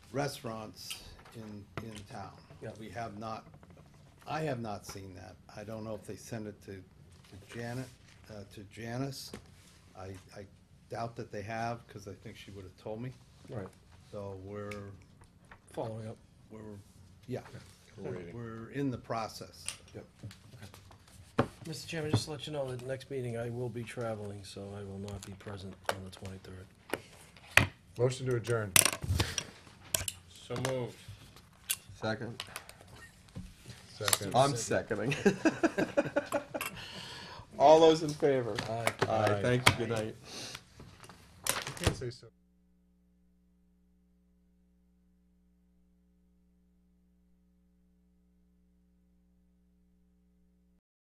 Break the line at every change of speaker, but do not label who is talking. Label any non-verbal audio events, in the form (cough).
restaurants in, in town.
Yeah.
We have not, I have not seen that. I don't know if they send it to to Janet, uh, to Janice. I, I doubt that they have, because I think she would have told me.
Right,
So we're,
following up.
we're, yeah.
We're waiting.
We're in the process.
Yep. Mr. Chairman, just to let you know, that the next meeting, I will be traveling, so I will not be present on the twenty-third.
Motion to adjourn.
So moved.
Second.
Second.
Um,
I'm seconding. (laughs) All those in favor?
Aye.
Aye, thank you, good night.
You can't say so.